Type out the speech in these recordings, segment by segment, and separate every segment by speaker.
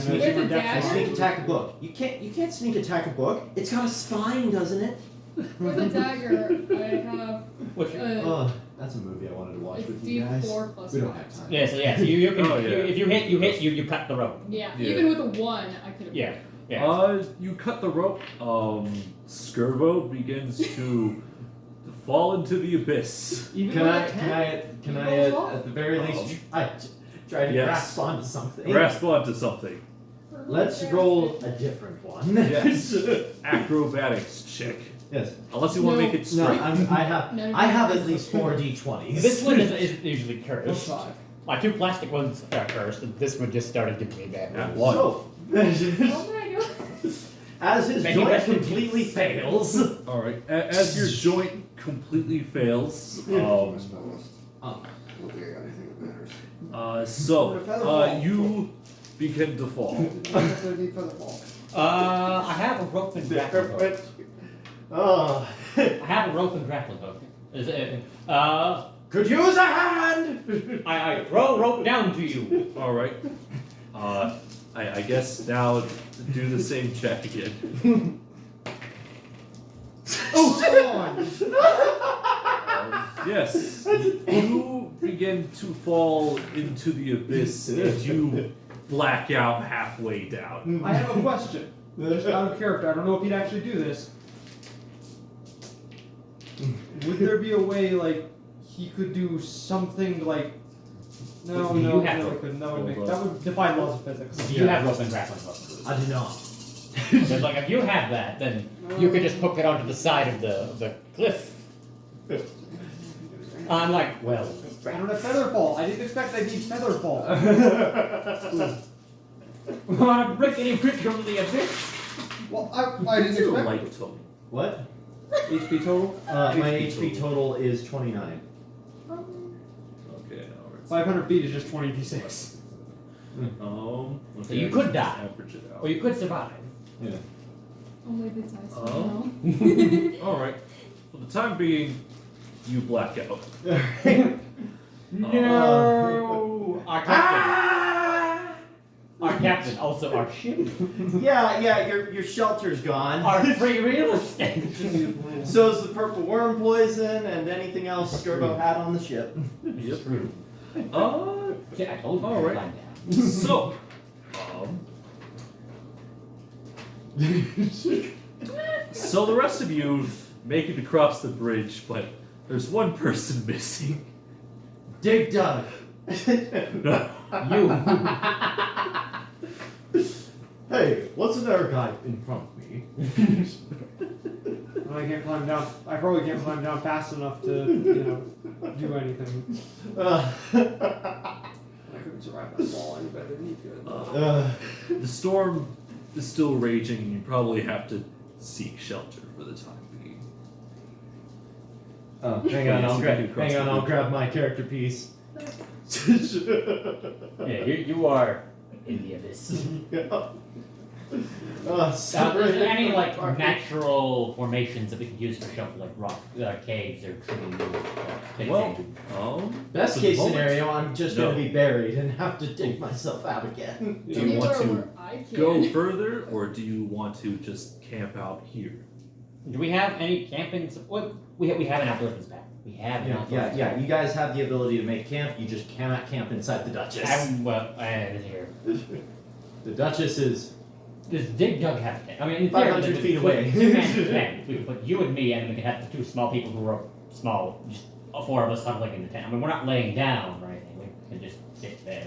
Speaker 1: sneak,
Speaker 2: With a
Speaker 1: I
Speaker 2: dagger?
Speaker 1: sneak attack a book. You can't. You can't sneak attack a book. It's got a spine, doesn't it?
Speaker 2: With a dagger, I have
Speaker 3: What's your-
Speaker 2: a
Speaker 1: Ugh, Oh, that's a movie I wanted to watch
Speaker 2: it's
Speaker 1: with you guys.
Speaker 2: D4 plus
Speaker 1: We don't
Speaker 2: five.
Speaker 1: have time.
Speaker 3: yeah, so yeah, so you, you can,
Speaker 4: Oh,
Speaker 3: you-
Speaker 4: yeah.
Speaker 3: if you hit, you hit, you you cut the rope.
Speaker 2: Yeah,
Speaker 4: Yeah.
Speaker 2: even with a one, I could have.
Speaker 3: Yeah, yeah.
Speaker 4: Uh, you cut the rope. Um, Skirvo begins to fall into the abyss.
Speaker 3: Even
Speaker 1: Can
Speaker 3: with
Speaker 1: I?
Speaker 3: a
Speaker 1: Can I? Can
Speaker 2: You
Speaker 1: I?
Speaker 2: roll
Speaker 1: At,
Speaker 2: off.
Speaker 1: at the very
Speaker 4: Oh.
Speaker 1: least, tr- I t- try to
Speaker 4: Yes.
Speaker 1: grasp onto something.
Speaker 4: Grasp onto something.
Speaker 1: Let's roll a different one.
Speaker 4: Yes. Acrobatics check.
Speaker 1: Yes.
Speaker 4: Unless you want to
Speaker 2: No.
Speaker 4: make it
Speaker 1: No,
Speaker 4: straight.
Speaker 1: I'm, I have.
Speaker 2: No, no,
Speaker 1: I
Speaker 2: no,
Speaker 1: have
Speaker 2: no.
Speaker 1: at least four d20s.
Speaker 3: This one is, is usually
Speaker 1: Oh,
Speaker 5: Or
Speaker 3: cursed.
Speaker 5: five.
Speaker 3: My two plastic ones are cursed, and this one just started giving me bad
Speaker 4: Yeah.
Speaker 3: rolls.
Speaker 4: One.
Speaker 1: So,
Speaker 2: What did I do?
Speaker 1: as his
Speaker 3: Thank you,
Speaker 1: joint
Speaker 3: Beth.
Speaker 1: completely fails.
Speaker 4: All right. A- as your joint completely fails, um,
Speaker 6: I don't think I got anything that matters.
Speaker 4: uh, so uh, you begin to fall.
Speaker 5: What's there need for the ball?
Speaker 3: Uh, I have a rope and grappling hook.
Speaker 1: Oh.
Speaker 3: I have a rope and grappling hook. Is it, uh,
Speaker 1: Could use a hand!
Speaker 3: I, I throw rope down to you.
Speaker 4: All right. Uh, I, I guess now do the same check again.
Speaker 5: Oh, come on!
Speaker 4: Um, yes, you begin to fall into the abyss as you black out halfway down.
Speaker 5: I have a question. Just out of character, I don't know if you'd actually do this. Would there be a way like he could do something like? No,
Speaker 3: You
Speaker 5: no,
Speaker 3: have
Speaker 5: no,
Speaker 3: to
Speaker 5: it couldn't. That would make
Speaker 4: roll
Speaker 5: that would defy laws of physics.
Speaker 3: You have rope and grappling hook.
Speaker 1: I do not.
Speaker 3: But like if you have that, then you could just hook it onto the side of the of the cliff. I'm like, well,
Speaker 5: I don't have feather fall. I didn't expect I'd need feather
Speaker 3: Uh,
Speaker 5: fall.
Speaker 3: want to break any creature from the abyss?
Speaker 5: Well, I, I didn't
Speaker 4: You're
Speaker 5: expect
Speaker 4: like Tony.
Speaker 1: what?
Speaker 5: HP total
Speaker 1: Uh, my
Speaker 4: HP
Speaker 1: HP total is 29.
Speaker 4: Okay, all right.
Speaker 5: 500 feet is just 20d6.
Speaker 4: Um, okay,
Speaker 3: So you
Speaker 4: I
Speaker 3: could
Speaker 4: just
Speaker 3: die.
Speaker 4: Average it out.
Speaker 3: Or you could survive.
Speaker 2: Only the dice.
Speaker 4: Oh.
Speaker 2: you know?
Speaker 4: all right. For the time being, you black out.
Speaker 3: No, our captain. Ah! Our captain, also our ship,
Speaker 1: yeah, yeah, your, your shelter's gone.
Speaker 3: our free real estate.
Speaker 1: So is the purple worm poison and anything else Skirbo had on the ship.
Speaker 4: Yep. Uh,
Speaker 3: Yeah, I told you.
Speaker 4: All right.
Speaker 3: Line down.
Speaker 4: so, um, so the rest of you make it across the bridge, but there's one person missing.
Speaker 1: Dig Dug.
Speaker 4: Uh,
Speaker 3: You.
Speaker 1: hey, what's another guy in front of me?
Speaker 5: I can't climb down. I probably can't climb down fast enough to, you know, do anything.
Speaker 1: Uh,
Speaker 5: I couldn't survive that fall any better than you could.
Speaker 4: Uh,
Speaker 1: uh,
Speaker 4: the storm is still raging, and you probably have to seek shelter for the time being.
Speaker 1: oh, hang on, I'll grab,
Speaker 4: Across
Speaker 1: hang on,
Speaker 4: the
Speaker 1: I'll
Speaker 4: bridge.
Speaker 1: grab my character piece.
Speaker 3: Yeah, you, you are in the abyss.
Speaker 1: Uh,
Speaker 3: Uh, is
Speaker 1: separated
Speaker 3: there any
Speaker 1: from
Speaker 3: like
Speaker 1: party.
Speaker 3: natural formations that we could use for shelter, like rock uh, caves or trees? or things
Speaker 4: Well,
Speaker 3: that-
Speaker 4: um,
Speaker 1: Best
Speaker 4: for the
Speaker 1: case
Speaker 4: moment-
Speaker 1: scenario, I'm just
Speaker 4: No.
Speaker 1: gonna be buried and have to dig myself out again.
Speaker 4: Do you want
Speaker 2: Anywhere
Speaker 4: to
Speaker 2: where I can.
Speaker 4: go further, or do you want to just camp out here?
Speaker 3: Do we have any camping? sup- What we have, we have an outdoors pack. We have an
Speaker 1: Yeah,
Speaker 3: outdoors
Speaker 1: yeah, yeah. You guys have the ability to make camp. You just cannot camp inside the Duchess.
Speaker 3: I'm, well, I had it here.
Speaker 1: the Duchess is
Speaker 3: Does Dig Dug have a tent? I mean, in
Speaker 1: 500 feet
Speaker 3: theory, we could
Speaker 1: away.
Speaker 3: Put two men in a tent. We could put you and me, and we could have the two small people who are small, just all four of us huddling in the tent. I mean, we're not laying down or anything. We can just sit there,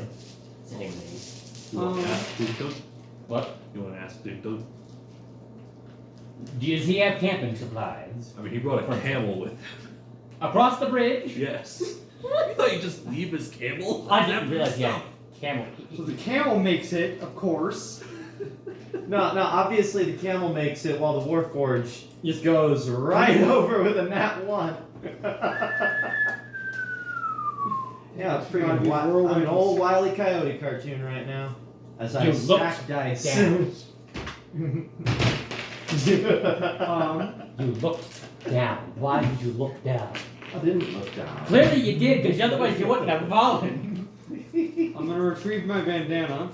Speaker 3: sitting there.
Speaker 4: You want
Speaker 5: Um,
Speaker 4: to ask Big Doug?
Speaker 3: What?
Speaker 4: You want to ask Big Doug?
Speaker 3: Does he have camping supplies
Speaker 4: I mean, he brought a
Speaker 3: Right.
Speaker 4: camel with him.
Speaker 3: across the bridge?
Speaker 4: Yes. You thought you just leave his camel?
Speaker 3: I didn't realize he had camel.
Speaker 5: So the camel makes it, of course.
Speaker 1: no, no. Obviously, the camel makes it, while the Warforge just goes right over with a nat one. yeah, it's
Speaker 5: Gotta
Speaker 1: freaking
Speaker 5: be
Speaker 1: wild. I'm an
Speaker 5: whirlwinds.
Speaker 1: old Wile E. Coyote cartoon right now. As I
Speaker 3: You looked
Speaker 1: stack dice.
Speaker 3: down.
Speaker 1: Uh,
Speaker 5: Um,
Speaker 3: You looked down. Why did you look down?
Speaker 1: I didn't look down.
Speaker 3: Clearly you did, because otherwise you wouldn't have fallen.
Speaker 5: I'm gonna retrieve my bandana.